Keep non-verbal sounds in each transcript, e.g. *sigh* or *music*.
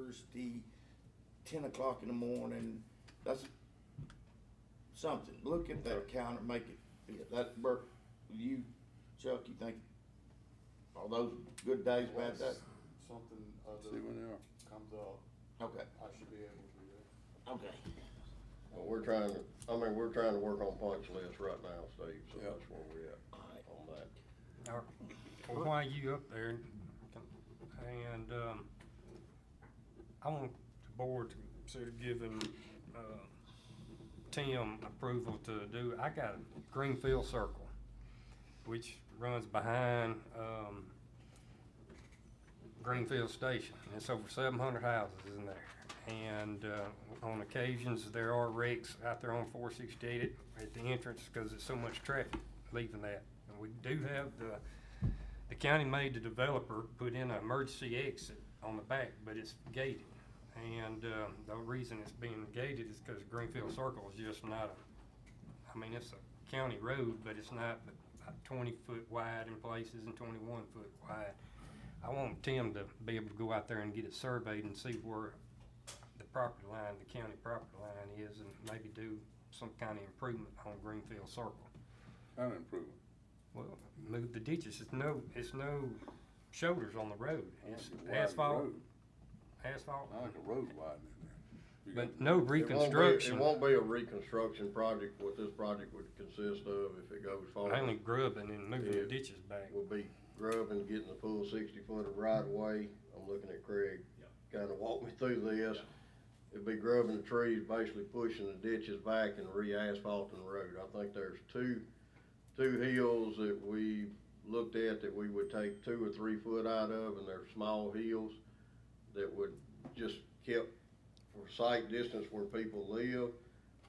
Thursday, ten o'clock in the morning, that's something, look at that counter, make it, that work, you, Chuck, you think, are those good days, bad days? Something See when other they are. comes up, Okay, I should be able to do that. okay. Well, we're trying to, I mean, we're trying to work on punch lists right now, Steve, so Yeah. that's where we're at All right. on that. Or, or why you up there, and, um, I want the board to consider giving, uh, Tim approval to do, I got a Greenfield Circle, which runs behind, um, Greenfield Station, and it's over seven hundred houses in there. And, uh, on occasions, there are wrecks out there on four sixty-eight at the entrance, because it's so much traffic leaving that. And we do have the, the county made the developer put in an emergency exit on the back, but it's gated. And, um, the reason it's being gated is because Greenfield Circle is just not a, I mean, it's a county road, but it's not about twenty foot wide in places and twenty-one foot wide. I want Tim to be able to go out there and get it surveyed and see where the property line, the county property line is, and maybe do some kind of improvement on Greenfield Circle. Kind of improvement. Well, move the ditches, it's no, it's no shoulders on the road, it's Widen the asphalt, road. asphalt, I like a road widening there. You but got- no It won't be- reconstruction. It won't be a reconstruction project, what this project would consist of if it goes forward. Mainly grubbing and moving Yeah. the ditches back. will be grubbing, getting the full sixty foot of right of way. I'm looking at Craig, kinda walk me through this. It'd be grubbing the trees, basically pushing the ditches back and re-asphalting the road. I think there's two, two hills that we looked at that we would take two or three foot out of, and they're small hills that would just kept for sight distance where people live.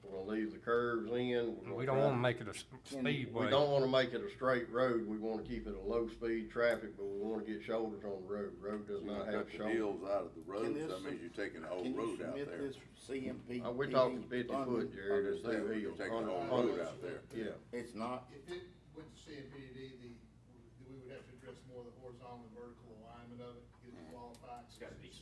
We're gonna leave the curves in. We're gonna We don't try- wanna make it a s- we speedway. don't wanna make it a straight road, we wanna keep it a low-speed traffic, but we wanna get shoulders on the road, road does You not cut have the shoulders. hills out of the roads, that this- means you're taking the Can whole you Oh, road out submit there. this CMP? Uh, We're talking fifty funding? foot, Jared, there's Understand, two but hills. you're taking the Hundred- whole road hundred- out there. Yeah, It's not, If it went to CMPD, the, we would have to address more of the horizontal and vertical alignment of it, get it qualified. It's gotta be. It's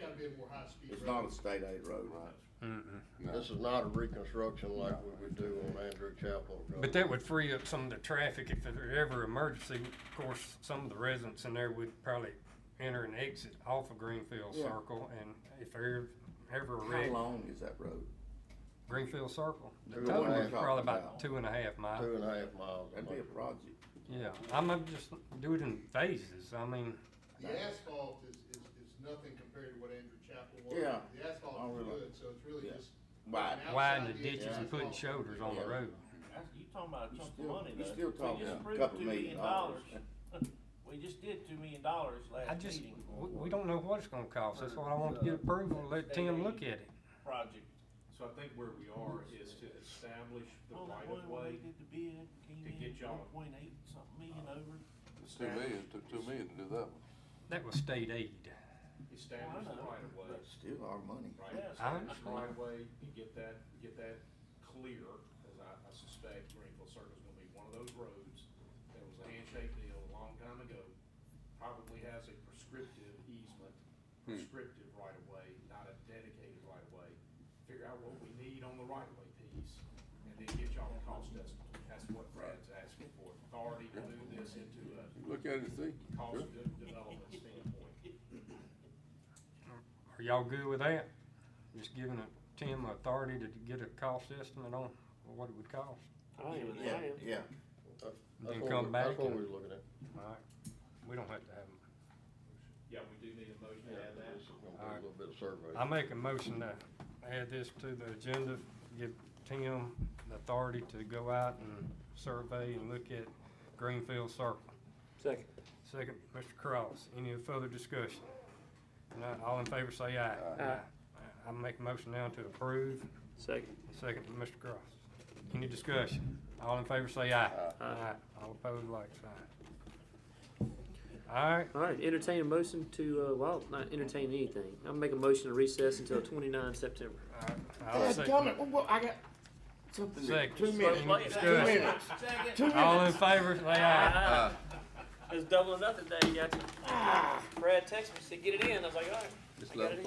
gotta, be a more high-speed Mm-hmm. road. it's not a state aid road, right? Mm-mm. this is not a reconstruction like we would do on Andrew Chapel. Road. But that would free up some of the traffic if there were ever emergency. Of course, some of the residents in there would probably enter and exit off of Greenfield Yeah. Circle, and if there ever a How wreck, long is that road? Greenfield Circle, the Two and a total half is probably mile. about two and a half Two miles. and a half miles. That'd be a project. Yeah, I'm gonna just do it in phases, I mean, The asphalt is, is, is nothing compared to what Andrew Chapel was. Yeah. The I asphalt is realize. good, so it's really Yeah. just. Wide. outside widening the the ditches and putting asphalt. shoulders on the Yeah. road. That's- You talking about a You chunk of still- money you though. still talking We just a approved couple $2 million dollars. We just did two million dollars I last just, meeting. we, we don't know what it's gonna cost, that's why I want to get approval, and let Tim look at it. Project. So I think where we are is to establish the Well, that right one of where we way. did the bid, came to get in y'all- Uh, one point eight something million over. It's two million, took two million to do that one. That was state aid. Establish the right of way, That's still our money. right? Yeah. Establish the I understand. right of way and get that, get that clear, because I, I suspect Greenville Circle's gonna be one of those roads that was a handshake deal a long time ago, probably has a prescriptive easement, Hmm. prescriptive right of way, not a dedicated right of way. Figure out what we need on the right of way piece, and then get y'all a cost estimate. That's what Brad's asking for, authority to move this into a Look at it and see. cost Sure. of development standpoint. Are y'all good with that? Just giving it- Tim authority to get a cost estimate on what it would cost? Yeah, yeah. That's Then what come we- back That's what and- we're looking at. All right. We don't have to have them. Yeah, we do need a motion to add that. This is gonna be a little bit of survey. I make a motion to add this to the agenda, give Tim the authority to go out and survey and look at Greenfield Circle. Second. Second, Mr. Cross. Any further discussion? Not all in favor, say aye. Aye. I make a motion now to approve. Second. Second, Mr. Cross. Any discussion? All in favor, say aye. Aye. All opposed, like sign. All right, All right, entertain a motion to, uh, well, not entertain anything. I'll make a motion to recess *laughs* until twenty-nine September. I'll God damn second. it, well, I got something, to- Second. two minutes, Discussion. two minutes, Second. two All minutes. in favor, say aye. Ah. It's double or nothing day, you got you. Brad texted me, said, get it in. I was like, all right. Just I got let it in.